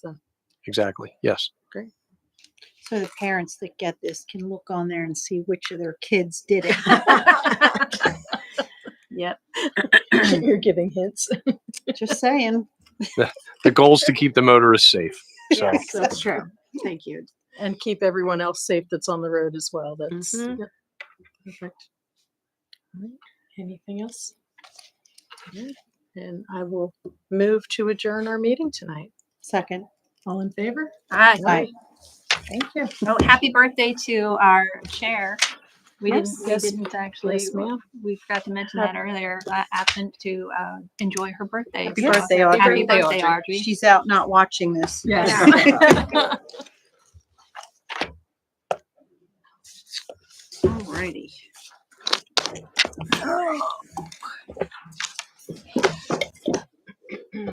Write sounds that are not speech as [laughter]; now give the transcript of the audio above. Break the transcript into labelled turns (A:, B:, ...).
A: exactly. Yes.
B: So the parents that get this can look on there and see which of their kids did it.
C: [laughs]
D: [laughs] Yep.
C: You're giving
D: [laughs]
C: hints.
B: Just saying.
A: The goal is to keep the motorists safe. So,
B: Yes, that's true.
D: Thank you.
C: And keep everyone else safe that's on the road as well. That's
D: Mhm.
C: yep. perfect. All right. Anything else? All right. And I will move to adjourn our meeting tonight.
B: Second.
C: All in favor?
D: Hi.
B: Aye.
C: Thank you.
D: Oh, happy birthday to our chair. We didn't, we
C: Yes.
D: didn't actually,
C: Yes, ma'am.
D: we forgot to mention that earlier, uh, absent to, uh, enjoy her birthday.
C: Happy
D: So,
C: birthday,
D: Happy
C: Audrey.
D: birthday, Audrey.
B: She's out not watching this.
D: Alrighty.